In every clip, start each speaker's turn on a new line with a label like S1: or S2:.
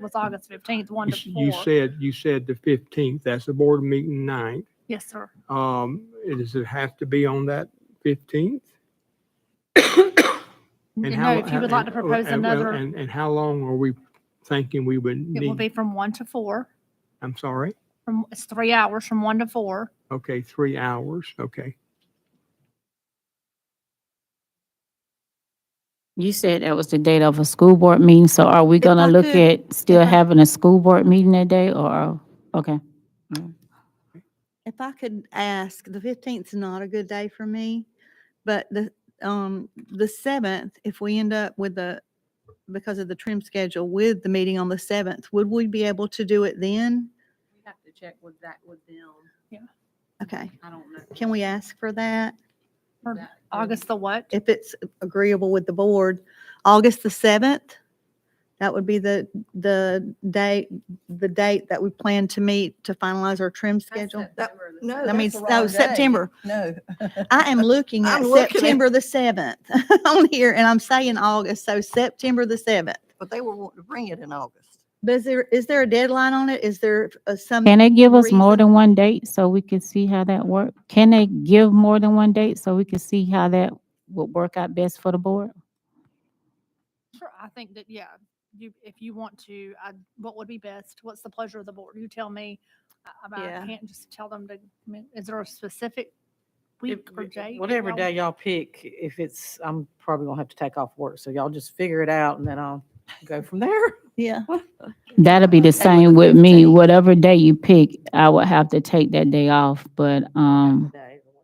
S1: was August fifteenth, one to
S2: You
S1: four.
S2: said, you said the fifteenth, that's the board meeting night.
S1: Yes, sir.
S2: Um, does it have to be on that fifteenth?
S1: You know, if you would like to propose another,
S2: And, and how long are we thinking we would
S1: it will
S2: need?
S1: be from one to four,
S2: I'm sorry?
S1: from, it's three hours from one to four.
S2: Okay, three hours, okay.
S3: You said that was the date of a school board meeting, so are we
S1: I
S3: gonna look
S1: could-
S3: at still
S1: if I-
S3: having a school board meeting that day, or, okay?
S4: If I could ask, the fifteenth's not a good day for me, but the, um, the seventh, if we end up with the, because of the trim schedule with the meeting on the seventh, would we be able to do it then?
S5: We have to check with that with them.
S4: Okay,
S5: I don't know.
S4: can we ask for that?
S1: Or
S5: That-
S1: August the what?
S4: If it's agreeable with the board, August the seventh? That would be the, the date, the date that we plan to meet to finalize our trim
S5: That's
S4: schedule?
S5: September the
S6: no,
S4: I
S5: seventh.
S4: mean,
S6: that's the
S4: no,
S6: wrong day.
S4: September.
S6: No.
S4: I am looking at
S6: I'm looking at-
S4: September the seventh on here, and I'm saying August, so September the seventh.
S6: But they were wanting to bring it in August.
S4: But is there, is there a deadline on it? Is there uh, some?
S3: Can they give us more
S4: reason-
S3: than one date so we can see how that work? Can they give more than one date so we can see how that would work out best for the board?
S1: Sure, I think that, yeah, you, if you want to, I, what would be best? What's the pleasure of the board? You tell me. I- I, I
S4: Yeah.
S1: can't just tell them to, I mean, is there a specific
S7: If-
S1: week or day? that
S7: Whatever
S1: y'all
S7: day y'all pick, if it's, I'm probably gonna have to take off work, so y'all just figure it out and then I'll go from there.
S4: Yeah,
S3: That'll be the same
S4: Okay, with the
S3: with me,
S4: 15th.
S3: whatever day you pick, I would have to take that day off, but, um,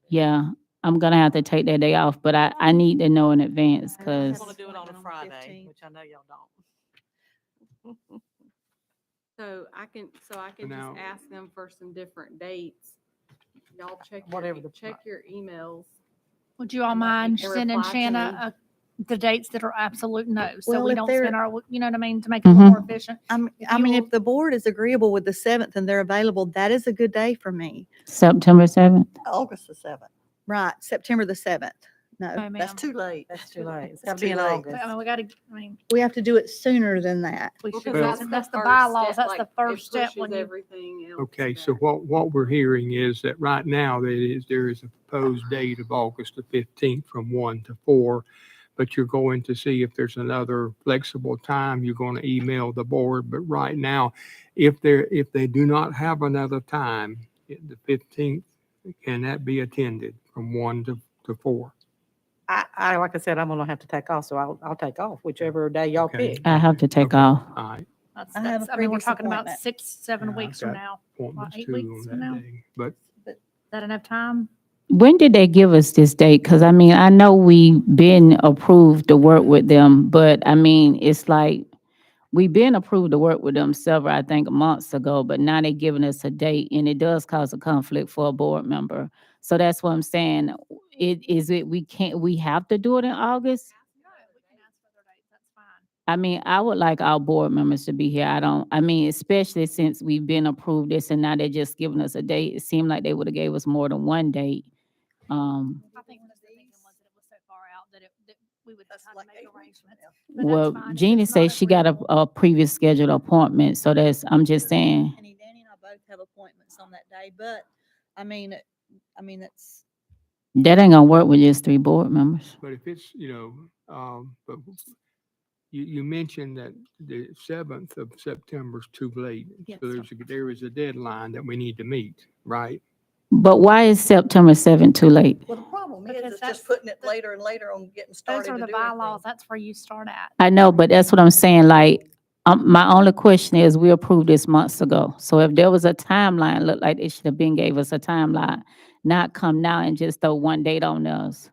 S3: yeah, I'm gonna have to take that day off, but I, I need to know in advance,
S4: I wanna
S3: cause.
S4: Yes. do it on a Friday, which
S7: I know y'all don't.
S5: So I can, so I can
S2: Now-
S5: just ask them for some different dates. Y'all check, your
S7: Whatever
S5: e-
S7: the pro-
S5: check your emails.
S1: Would you all
S5: and I
S1: mind
S5: think they
S1: sending
S5: reply to
S1: Shanna uh, the dates that are absolute no, so
S4: Well,
S1: we
S4: if
S1: don't
S4: they're-
S1: spend our, you know what I mean, to make it more efficient?
S4: I'm,
S1: If
S4: I
S1: you
S4: mean,
S1: will-
S4: if the board is agreeable with the seventh and they're available, that is a good day for me.
S3: September seventh?
S6: August the seventh.
S4: Right, September the seventh. No,
S1: No, ma'am.
S6: That's too late.
S7: That's too late. It's
S6: It's
S7: gotta
S6: too
S7: be in
S6: late.
S1: But, I
S7: August.
S1: mean, we gotta, I mean,
S4: we have to do it sooner than that.
S1: we
S5: Well,
S1: should,
S5: 'cause
S1: that's that's the
S5: first
S1: bylaws,
S5: step,
S1: that's the
S5: like, it
S1: first step
S5: pushes
S1: when you
S5: Everything else.
S2: Okay,
S5: back.
S2: so what, what we're hearing is that right now, that is, there is a proposed date of August the fifteenth from one to four. But you're going to see if there's another flexible time, you're going to email the board. But right now, if there, if they do not have another time, it- the fifteenth, can that be attended from one to, to four?
S7: I, I, like I said, I'm gonna have to take off, so I'll, I'll take off whichever day y'all
S2: Okay.
S7: pick.
S3: I have to take
S2: Okay.
S3: off.
S2: All right.
S1: That's,
S4: I have
S1: that's,
S4: a
S1: I mean, we're
S4: previous
S1: talking about
S4: appointment.
S1: six, seven
S2: Yeah,
S1: weeks from
S2: okay.
S1: now.
S2: Appointments
S1: eight
S2: too
S1: weeks
S2: on
S1: from
S2: that
S1: now.
S2: day. But
S1: Is that enough time?
S3: When did they give us this date? Because I mean, I know we been approved to work with them, but I mean, it's like we been approved to work with them several, I think, months ago, but now they giving us a date and it does cause a conflict for a board member. So that's what I'm saying. It is it we can't we have to do it in August? I mean, I would like our board members to be here. I don't, I mean, especially since we've been approved this and now they're just giving us a date. It seemed like they would have gave us more than one date. Um,
S1: I think one of the thinking was that it was so far out that it, that we would have
S6: That's
S1: time
S6: like
S1: to make
S6: eight weeks from
S1: arrangements.
S6: now.
S1: But that's
S3: well,
S1: fine if
S3: Jeannie
S1: it's not
S3: says she got a,
S1: agreeable.
S3: a previous scheduled appointment, so that's, I'm just saying,
S4: Danny Danny and I both have appointments on that day, but I mean, I mean, it's,
S3: that ain't gonna work with just three board members.
S2: But if it's, you know, um, but w- you, you mentioned that the seventh of September's too late.
S4: Yes,
S2: So
S4: sir.
S2: there's, a- there is a deadline that we need to meet, right?
S3: But why is September seventh too late?
S6: Well, the problem
S1: Because
S6: is, it's
S1: that's-
S6: just putting it
S1: that-
S6: later and later on getting started
S1: Those
S6: to
S1: are
S6: do
S1: the bylaws, that's where you start at.
S3: I know, but that's what I'm saying, like, um, my only question is, we approved this months ago. So if there was a timeline, looked like it should have been gave us a timeline, not come now and just throw one date on us.
S5: For them,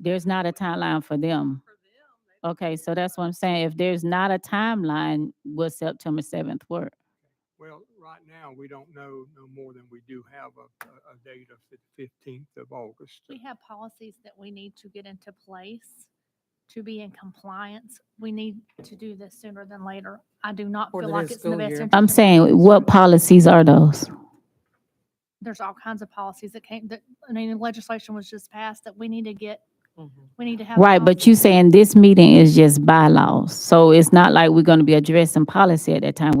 S3: There's not a timeline for them.
S5: for them, they-
S3: Okay, so that's what I'm saying. If there's not a timeline, will September seventh work?
S2: Well, right now, we don't know no more than we do have a, a, a date of the fifteenth of August.
S1: We have policies that we need to get into place to be in compliance. We need to do this sooner than later. I do not
S7: Or
S1: feel
S7: the
S1: like
S7: next
S1: it's in the
S7: school
S1: best
S7: year.
S1: interest.
S3: I'm
S1: of the
S3: saying, what
S1: students.
S3: policies are those?
S1: There's all kinds of policies that came, that, I mean, legislation was just passed that we need to get We need to have.
S3: Right, but you saying this meeting is just bylaws, so it's not like we're gonna be addressing policy at that time.